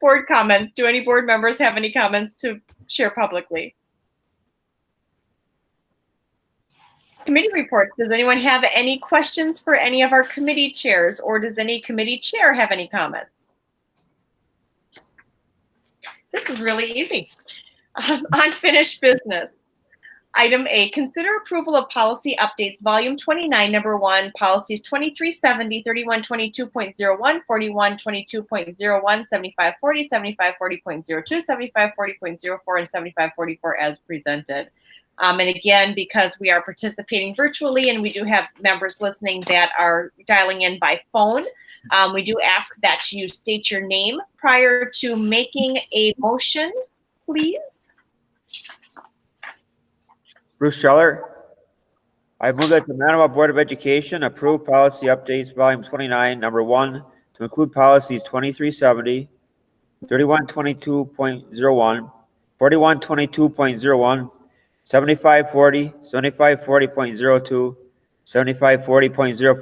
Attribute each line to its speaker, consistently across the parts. Speaker 1: board comments. Do any board members have any comments to share publicly? Committee reports. Does anyone have any questions for any of our committee chairs, or does any committee chair have any comments? This is really easy. Um, Unfinished business. Item A, consider approval of policy updates, volume 29, number one, policies 2370, 3122.01, 4122.01, 7540, 7540.02, 7540.04, and 7544 as presented. Um, and again, because we are participating virtually and we do have members listening that are dialing in by phone, um, we do ask that you state your name prior to making a motion, please.
Speaker 2: Bruce Scheller. I move that the Manawha Board of Education approve policy updates, volume 29, number 1, to include policies 2370, 3122.01, 4122.01, 7540, 7540.02, 7540.04,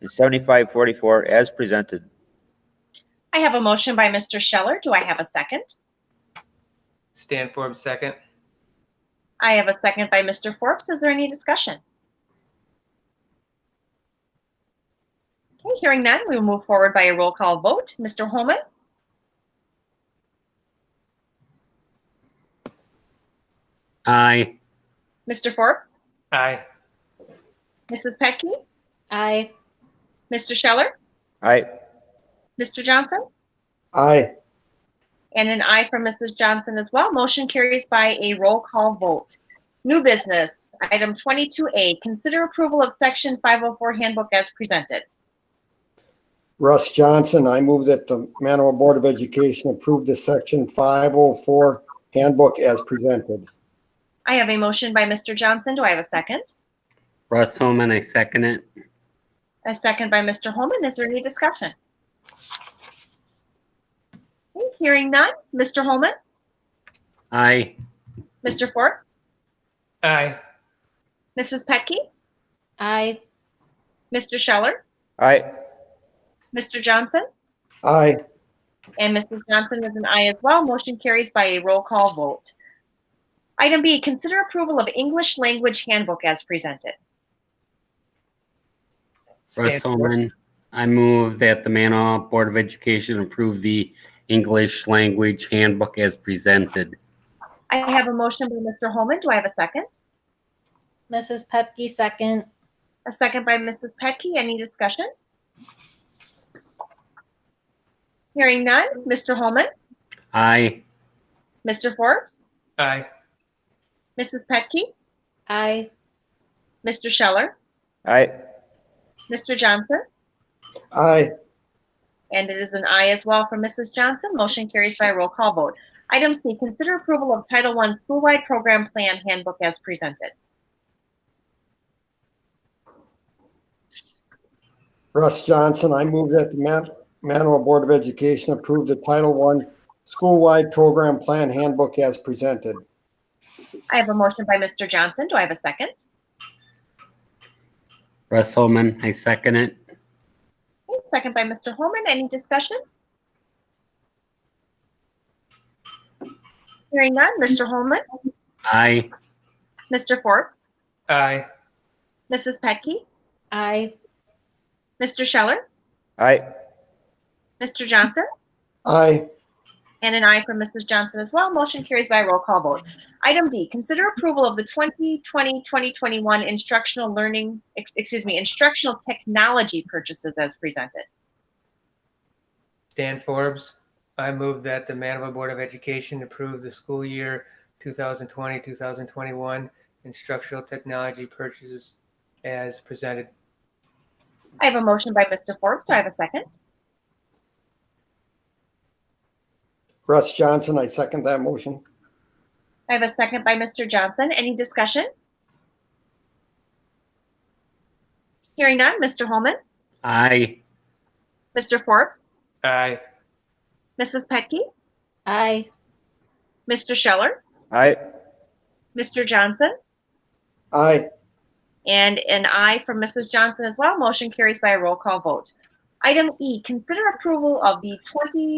Speaker 2: and 7544 as presented.
Speaker 1: I have a motion by Mr. Scheller. Do I have a second?
Speaker 3: Stan Forbes, second.
Speaker 1: I have a second by Mr. Forbes. Is there any discussion? Okay, hearing none, we will move forward by a roll call vote. Mr. Holman,
Speaker 4: Aye.
Speaker 1: Mr. Forbes,
Speaker 3: Aye.
Speaker 1: Mrs. Petke,
Speaker 5: Aye.
Speaker 1: Mr. Scheller,
Speaker 2: Aye.
Speaker 1: Mr. Johnson,
Speaker 6: aye.
Speaker 1: and an aye from Mrs. Johnson as well. Motion carries by a roll call vote. New business, item 22A, consider approval of section 504 handbook as presented.
Speaker 6: Russ Johnson, I move that the Manawha Board of Education approve the section 504 handbook as presented.
Speaker 1: I have a motion by Mr. Johnson. Do I have a second?
Speaker 4: Russ Holman, I second it.
Speaker 1: A second by Mr. Holman. Is there any discussion? Okay, Hearing none. Mr. Holman,
Speaker 4: Aye.
Speaker 1: Mr. Forbes,
Speaker 3: Aye.
Speaker 1: Mrs. Petke,
Speaker 5: Aye.
Speaker 1: Mr. Scheller,
Speaker 2: Aye.
Speaker 1: Mr. Johnson,
Speaker 6: Aye.
Speaker 1: and Mrs. Johnson is an aye as well. Motion carries by a roll call vote. Item B, consider approval of English language handbook as presented.
Speaker 4: Russ
Speaker 3: Stan Forbes,
Speaker 4: Holman, I move that the Manawha Board of Education approve the English language handbook as presented.
Speaker 1: I have a motion by Mr. Holman. Do I have a second?
Speaker 5: Mrs. Petke, second.
Speaker 1: A second by Mrs. Petke. Any discussion? Hearing none. Mr. Holman,
Speaker 4: Aye.
Speaker 1: Mr. Forbes,
Speaker 3: Aye.
Speaker 1: Mrs. Petke,
Speaker 5: Aye.
Speaker 1: Mr. Scheller,
Speaker 2: Aye.
Speaker 1: Mr. Johnson,
Speaker 6: Aye.
Speaker 1: and it is an aye as well from Mrs. Johnson. Motion carries by roll call vote. Item C, consider approval of Title I Schoolwide Program Plan Handbook as presented.
Speaker 6: Russ Johnson, I move that the Man- Manawha Board of Education approve the Title I Schoolwide Program Plan Handbook as presented.
Speaker 1: I have a motion by Mr. Johnson. Do I have a second?
Speaker 4: Russ Holman, I second it.
Speaker 1: Okay, Second by Mr. Holman. Any discussion? Hearing none. Mr. Holman,
Speaker 4: Aye.
Speaker 1: Mr. Forbes,
Speaker 3: Aye.
Speaker 1: Mrs. Petke,
Speaker 5: Aye.
Speaker 1: Mr. Scheller,
Speaker 2: Aye.
Speaker 1: Mr. Johnson,
Speaker 6: Aye.
Speaker 1: And an aye from Mrs. Johnson as well. Motion carries by roll call vote. Item D, consider approval of the 2020-2021 instructional learning, ex- excuse me, instructional technology purchases as presented.
Speaker 3: Stan Forbes, I move that the Manawha Board of Education approve the school year 2020, 2021 instructional technology purchases as presented.
Speaker 1: I have a motion by Mr. Forbes. Do I have a second?
Speaker 6: Russ Johnson, I second that motion.
Speaker 1: I have a second by Mr. Johnson. Any discussion? Hearing none. Mr. Holman,
Speaker 4: Aye.
Speaker 1: Mr. Forbes,
Speaker 3: Aye.
Speaker 1: Mrs. Petke,
Speaker 5: Aye.
Speaker 1: Mr. Scheller,
Speaker 2: Aye.
Speaker 1: Mr. Johnson,
Speaker 6: Aye.
Speaker 1: And an aye from Mrs. Johnson as well. Motion carries by a roll call vote. Item E, consider approval of the 20